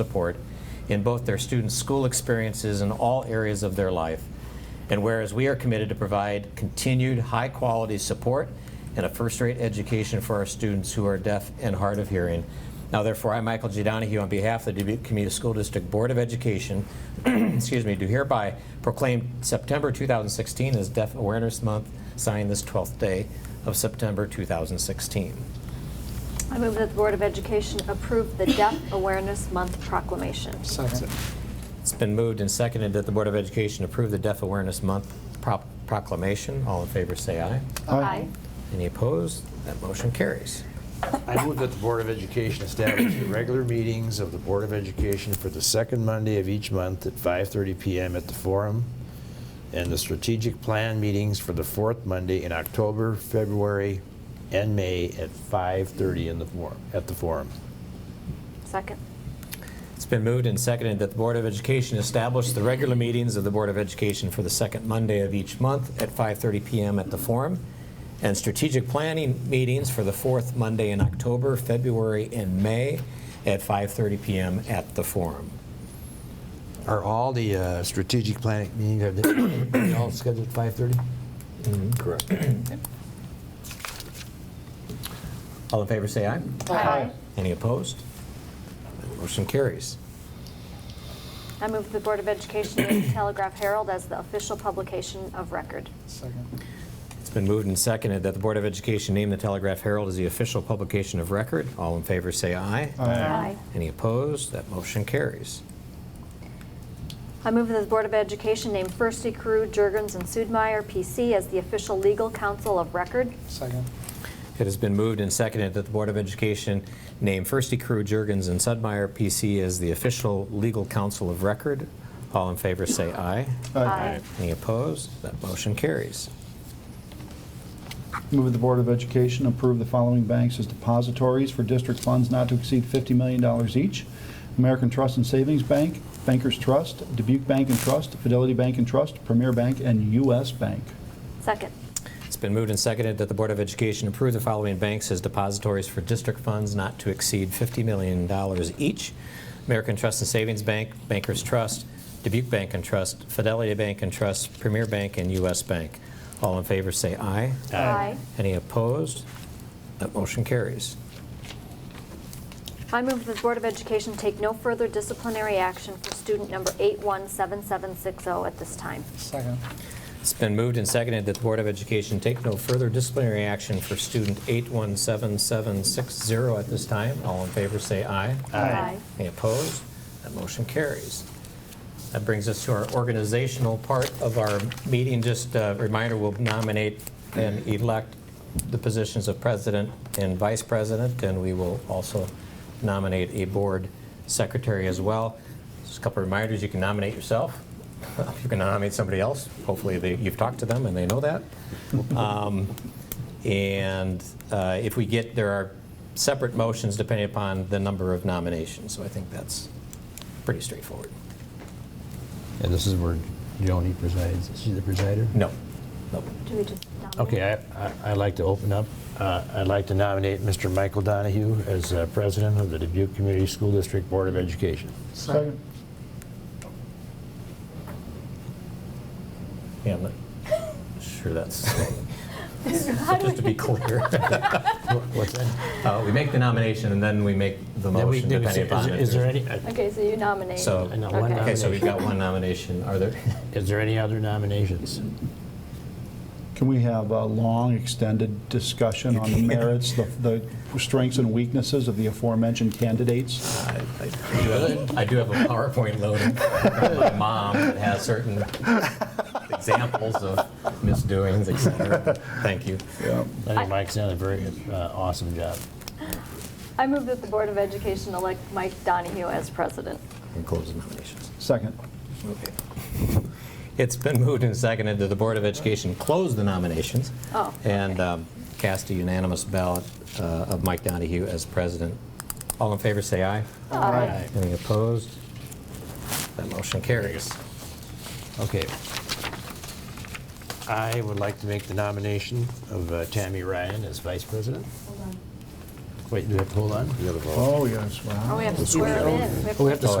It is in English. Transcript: support in both their students' school experiences and all areas of their life. And whereas we are committed to provide continued high-quality support and a first-rate education for our students who are deaf and hard of hearing. Now therefore, I, Michael G. Donahue, on behalf of the Dubuque Community School District Board of Education, excuse me, do hereby proclaim September 2016 as Deaf Awareness Month, signed this 12th day of September 2016. I move that the Board of Education approve the Deaf Awareness Month proclamation. Second. It's been moved and seconded that the Board of Education approve the Deaf Awareness Month prop- proclamation. All in favor, say aye. Aye. Any opposed? That motion carries. I move that the Board of Education establish the regular meetings of the Board of Education for the second Monday of each month at 5:30 PM at the Forum, and the strategic plan meetings for the fourth Monday in October, February, and May at 5:30 in the Forum, at the Forum. Second. It's been moved and seconded that the Board of Education establish the regular meetings of the Board of Education for the second Monday of each month at 5:30 PM at the Forum, and strategic planning meetings for the fourth Monday in October, February, and May at 5:30 PM at the Forum. Are all the uh, strategic planning meetings, are they- are they all scheduled at 5:30? Correct. All in favor, say aye. Aye. Any opposed? That Motion carries. I move the Board of Education name the Telegraph Herald as the official publication of record. Second. It's been moved and seconded that the Board of Education name the Telegraph Herald as the official publication of record. All in favor, say aye. Aye. Any opposed? That motion carries. I move that the Board of Education name Firsty Crew, Jurgens, and Sudmeyer, PC, as the official legal counsel of record. Second. It has been moved and seconded that the Board of Education name Firsty Crew, Jurgens, and Sudmeyer, PC, as the official legal counsel of record. All in favor, say aye. Aye. Any opposed? That motion carries. Move that the Board of Education approve the following banks as depositories for district funds not to exceed $50 million each. American Trust and Savings Bank, Bankers Trust, Dubuque Bank and Trust, Fidelity Bank and Trust, Premier Bank, and U.S. Bank. Second. It's been moved and seconded that the Board of Education approve the following banks as depositories for district funds not to exceed $50 million each. American Trust and Savings Bank, Bankers Trust, Dubuque Bank and Trust, Fidelity Bank and Trust, Premier Bank, and U.S. Bank. All in favor, say aye. Aye. Any opposed? That motion carries. I move that the Board of Education take no further disciplinary action for student number 817760 at this time. Second. It's been moved and seconded that the Board of Education take no further disciplinary action for student 817760 at this time. All in favor, say aye. Aye. Any opposed? That motion carries. That brings us to our organizational part of our meeting. Just a reminder, we'll nominate and elect the positions of president and vice president, and we will also nominate a board secretary as well. Just a couple of reminders, you can nominate yourself. If you can nominate somebody else, hopefully they- you've talked to them and they know that. Um, And uh, if we get, there are separate motions depending upon the number of nominations, so I think that's pretty straightforward. And this is where Joni presides. Is she the presider? No, no. Do we just nominate? Okay, I- I- I'd like to open up. Uh, I'd like to nominate Mr. Michael Donahue as uh, president of the Dubuque Community School District Board of Education. Second. Yeah, I'm not sure that's, How do just to be we- clear. What's that? Uh, We make the nomination and then we make the Then we- motion then we say- depending upon Is is it. there any, uh, Okay, so you nominate. So, I know, one Okay. okay, so we've got one nomination. Are there, is there any other nominations? Can we have a long, extended discussion on the merits, the the strengths and weaknesses of the aforementioned candidates? I I do have- I do have a PowerPoint loaded from my mom that has certain examples of misdoings, et cetera. Thank you. I think Mike's done a very uh, awesome job. I move that the Board of Education elect Mike Donahue as president. And close the nominations. Second. It's been moved and seconded that the Board of Education close the nominations. Oh, And um, cast a unanimous ballot uh, of Mike Donahue as president. All in favor, say aye. Aye. Any opposed? That motion carries. Okay. I would like to make the nomination of uh, Tammy Ryan as vice president. Wait, do we have to hold on? We gotta vote. Oh, yes, wow. Oh, we have to square it in. Oh, we have to